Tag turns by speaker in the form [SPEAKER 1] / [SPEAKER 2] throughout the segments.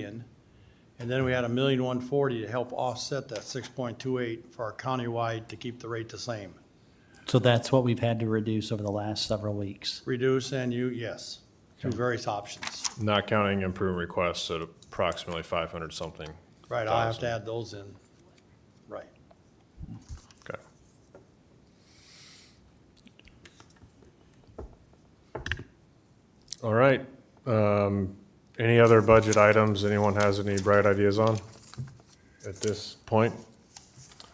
[SPEAKER 1] million. And then we had a million one forty to help offset that six point two eight for our countywide to keep the rate the same.
[SPEAKER 2] So that's what we've had to reduce over the last several weeks.
[SPEAKER 1] Reduce and you, yes, through various options.
[SPEAKER 3] Not counting improvement requests at approximately five hundred something.
[SPEAKER 1] Right, I'll have to add those in. Right.
[SPEAKER 3] Okay. All right. Um, any other budget items anyone has any bright ideas on at this point?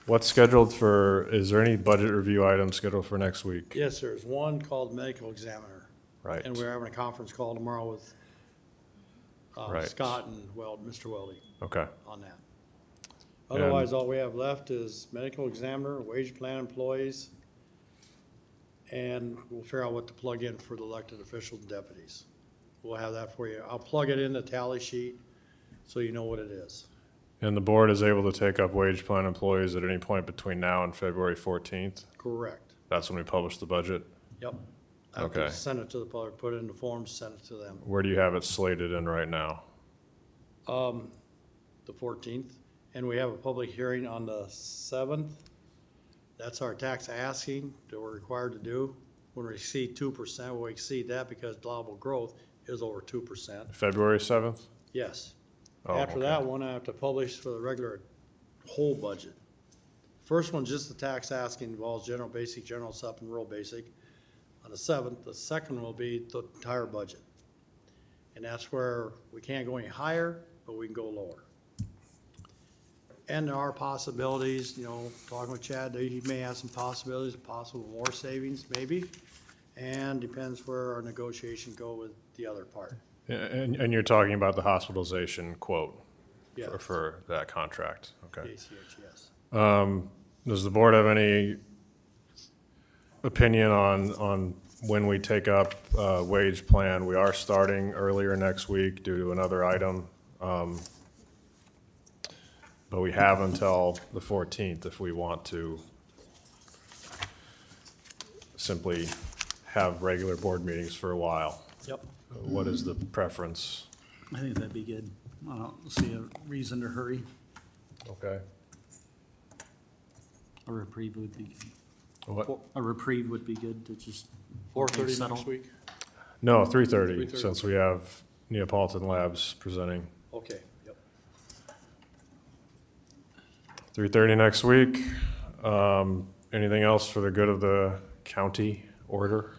[SPEAKER 3] What's scheduled for, is there any budget review items scheduled for next week?
[SPEAKER 1] Yes, there's one called medical examiner.
[SPEAKER 3] Right.
[SPEAKER 1] And we're having a conference call tomorrow with uh,
[SPEAKER 3] Right.
[SPEAKER 1] Scott and Weld, Mr. Weldy
[SPEAKER 3] Okay.
[SPEAKER 1] on that.
[SPEAKER 3] And-
[SPEAKER 1] Otherwise, all we have left is medical examiner, wage plan employees, and we'll figure out what to plug in for the elected officials and deputies. We'll have that for you. I'll plug it in the tally sheet so you know what it is.
[SPEAKER 3] And the board is able to take up wage plan employees at any point between now and February fourteenth?
[SPEAKER 1] Correct.
[SPEAKER 3] That's when we publish the budget?
[SPEAKER 1] Yep. I have to
[SPEAKER 3] Okay.
[SPEAKER 1] Send it to the public, put it in the forms, send it to them.
[SPEAKER 3] Where do you have it slated in right now?
[SPEAKER 1] Um, the fourteenth, and we have a public hearing on the seventh. That's our tax asking that we're required to do. When we exceed two percent, we'll exceed that because allowable growth is over two percent,
[SPEAKER 3] February 7th?
[SPEAKER 1] yes.
[SPEAKER 3] Oh,
[SPEAKER 1] After
[SPEAKER 3] okay.
[SPEAKER 1] that one, I have to publish for the regular whole budget. First one, just the tax asking involves general basic, general sup, and rural basic. On the seventh, the second will be the entire budget. And that's where we can't go any higher, but we can go lower. And there are possibilities, you know, talking with Chad, that he may have some possibilities, possible more savings, maybe. And depends where our negotiation go with the other part,
[SPEAKER 3] And, and you're talking about the hospitalization quote
[SPEAKER 1] yeah,
[SPEAKER 3] for, for that contract,
[SPEAKER 1] the
[SPEAKER 3] okay?
[SPEAKER 1] ACH, yes.
[SPEAKER 3] Does the board have any opinion on, on when we take up uh, wage plan? We are starting earlier next week due to another item. um, But we have until the 14th if we want to simply have regular board meetings for a while.
[SPEAKER 1] Yep.
[SPEAKER 3] What is the preference?
[SPEAKER 2] I think that'd be good. I don't see a reason to hurry.
[SPEAKER 3] Okay.
[SPEAKER 2] A reprieve would be,
[SPEAKER 3] What?
[SPEAKER 2] a reprieve would be good to just.
[SPEAKER 1] Four thirty
[SPEAKER 2] settle.
[SPEAKER 1] next week?
[SPEAKER 3] No, three thirty,
[SPEAKER 1] 3:30.
[SPEAKER 3] since we have Neapolitan Labs presenting.
[SPEAKER 1] Okay, yep.
[SPEAKER 3] Three thirty next week. Um, anything else for the good of the county order?